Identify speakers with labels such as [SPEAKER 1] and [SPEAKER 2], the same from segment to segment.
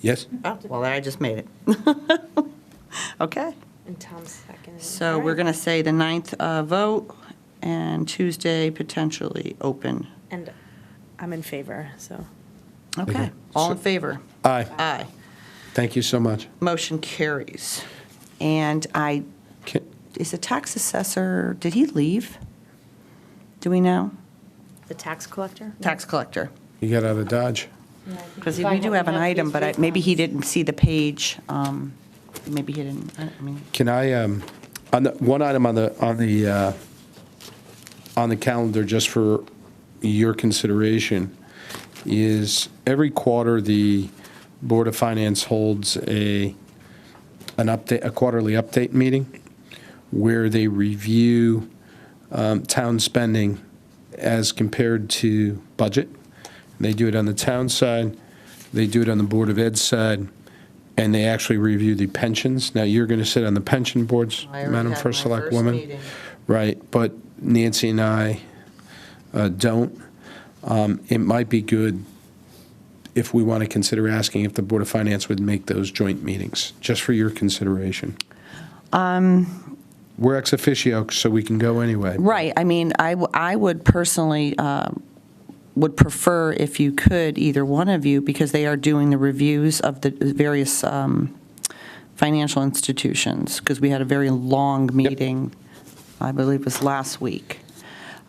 [SPEAKER 1] Yes?
[SPEAKER 2] Oh, well, then I just made it. Okay,
[SPEAKER 3] And Tom's second.
[SPEAKER 2] so we're going to say the 9th uh, vote and Tuesday potentially open.
[SPEAKER 3] And I'm in favor, so.
[SPEAKER 2] Okay,
[SPEAKER 1] Okay.
[SPEAKER 2] all in
[SPEAKER 1] So-
[SPEAKER 2] favor?
[SPEAKER 1] Aye.
[SPEAKER 2] Aye.
[SPEAKER 1] Thank you so much.
[SPEAKER 2] Motion carries. And I,
[SPEAKER 1] Can-
[SPEAKER 2] is the tax assessor, did he leave? Do we know?
[SPEAKER 3] The tax collector?
[SPEAKER 2] Tax collector.
[SPEAKER 1] You got out of Dodge.
[SPEAKER 2] Because we do have an item, but I- maybe he didn't see the page. um, Maybe he didn't, I I mean,
[SPEAKER 1] Can I, um, on the, one item on the, on the, uh, on the calendar, just for your consideration, is every quarter, the Board of Finance holds a, an update, a quarterly update meeting where they review um, town spending as compared to budget. They do it on the town side, they do it on the Board of Ed side, and they actually review the pensions. Now, you're going to sit on the pension
[SPEAKER 2] I
[SPEAKER 1] boards,
[SPEAKER 2] already
[SPEAKER 1] Madam
[SPEAKER 2] had
[SPEAKER 1] First
[SPEAKER 2] my
[SPEAKER 1] Select
[SPEAKER 2] first
[SPEAKER 1] Woman.
[SPEAKER 2] meeting.
[SPEAKER 1] Right, but Nancy and I uh, don't. Um, It might be good if we want to consider asking if the Board of Finance would make those joint meetings, just for your consideration. We're ex officio, so we can go anyway.
[SPEAKER 2] Um, Right, I mean, I, w- I would personally, um, would prefer if you could, either one of you, because they are doing the reviews of the various um, financial institutions, because we had a very long meeting, I believe it was last week,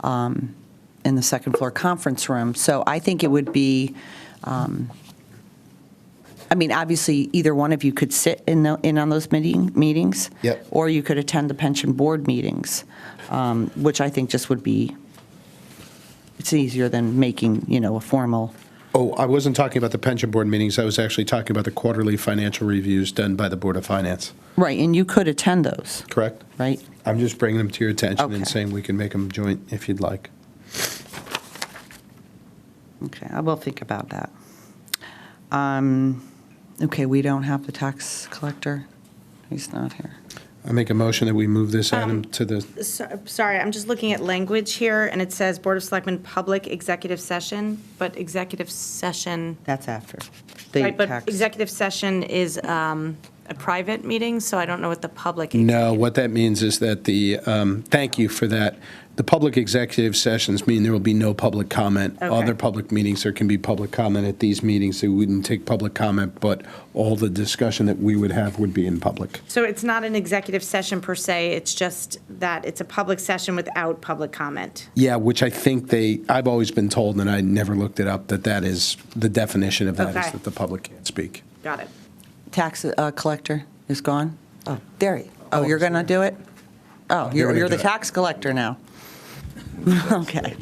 [SPEAKER 2] um, in the second floor conference room. So I think it would be, um, I mean, obviously, either one of you could sit in, the- in on those meeting, meetings.
[SPEAKER 1] Yep.
[SPEAKER 2] Or you could attend the pension board meetings, um, which I think just would be, it's easier than making, you know, a formal,
[SPEAKER 1] Oh, I wasn't talking about the pension board meetings, I was actually talking about the quarterly financial reviews done by the Board of Finance,
[SPEAKER 2] right, and you could attend those,
[SPEAKER 1] correct?
[SPEAKER 2] right?
[SPEAKER 1] I'm just bringing them to your attention
[SPEAKER 2] Okay.
[SPEAKER 1] and saying we can make them joint if you'd like.
[SPEAKER 2] Okay, I will think about that. Um, Okay, we don't have the tax collector. He's not here.
[SPEAKER 1] I make a motion that we move this
[SPEAKER 2] Um,
[SPEAKER 1] item to the,
[SPEAKER 3] Sorry, I'm just looking at language here, and it says Board of Selectmen, public executive session, but executive session,
[SPEAKER 2] That's after. the
[SPEAKER 3] right, but
[SPEAKER 2] tax.
[SPEAKER 3] executive session is um, a private meeting, so I don't know what the public.
[SPEAKER 1] no, what that means is that the, um, thank you for that. The public executive sessions mean there will be no public comment.
[SPEAKER 3] Okay.
[SPEAKER 1] Other public meetings, there can be public comment at these meetings, they wouldn't take public comment, but all the discussion that we would have would be in public.
[SPEAKER 3] So it's not an executive session per se, it's just that it's a public session without public comment.
[SPEAKER 1] Yeah, which I think they, I've always been told, and I never looked it up, that that is, the definition of that is
[SPEAKER 3] Okay.
[SPEAKER 1] that the public can't speak.
[SPEAKER 3] Got it.
[SPEAKER 2] Tax uh, collector is gone? Oh, there he, oh, you're going to do it? Oh, you're
[SPEAKER 1] gonna
[SPEAKER 2] you're the
[SPEAKER 1] do it.
[SPEAKER 2] tax collector now. Okay.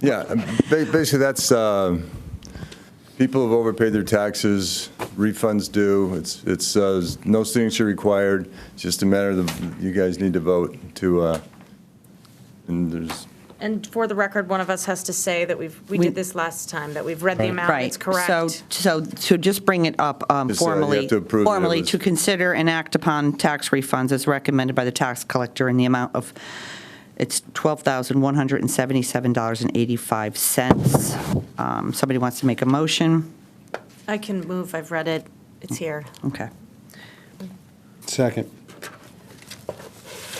[SPEAKER 4] Yeah, um, ba- basically, that's, uh, people have overpaid their taxes, refunds due, it's, it's, uh, there's no signature required, it's just a matter of, you guys need to vote to, uh, and there's,
[SPEAKER 3] And for the record, one of us has to say that we've, we
[SPEAKER 2] We-
[SPEAKER 3] did this last time, that we've read the
[SPEAKER 1] Right.
[SPEAKER 3] amount,
[SPEAKER 2] Right.
[SPEAKER 3] it's correct.
[SPEAKER 2] So, so, so just bring it up um,
[SPEAKER 4] Just, uh, you have
[SPEAKER 2] formally.
[SPEAKER 4] to approve that it
[SPEAKER 2] Formally,
[SPEAKER 4] was-
[SPEAKER 2] to consider and act upon tax refunds as recommended by the tax collector in the amount of, it's $12,177.85. Um, Somebody wants to make a motion?
[SPEAKER 3] I can move, I've read it, it's here.
[SPEAKER 2] Okay.
[SPEAKER 1] Second.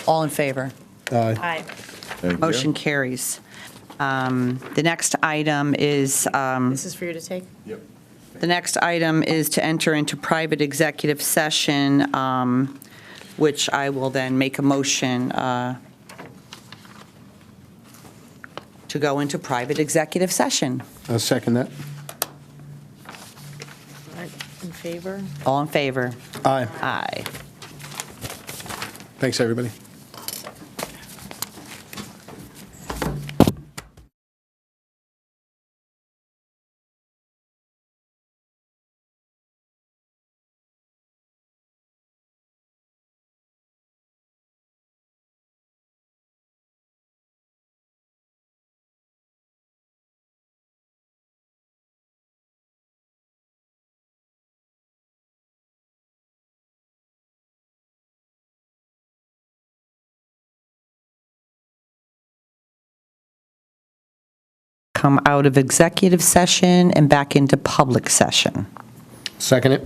[SPEAKER 2] All in favor?
[SPEAKER 1] Aye.
[SPEAKER 3] Aye.
[SPEAKER 4] thank you.
[SPEAKER 2] Motion carries. Um, The next item is um,
[SPEAKER 3] This is for you to take?
[SPEAKER 4] Yep.
[SPEAKER 2] The next item is to enter into private executive session, um, which I will then make a motion uh, to go into private executive session.
[SPEAKER 1] I'll second that.
[SPEAKER 3] In favor?
[SPEAKER 2] All in favor?
[SPEAKER 1] Aye.
[SPEAKER 2] Aye.
[SPEAKER 1] Thanks, everybody.
[SPEAKER 2] Come out of executive session and back into public session.
[SPEAKER 1] Second it?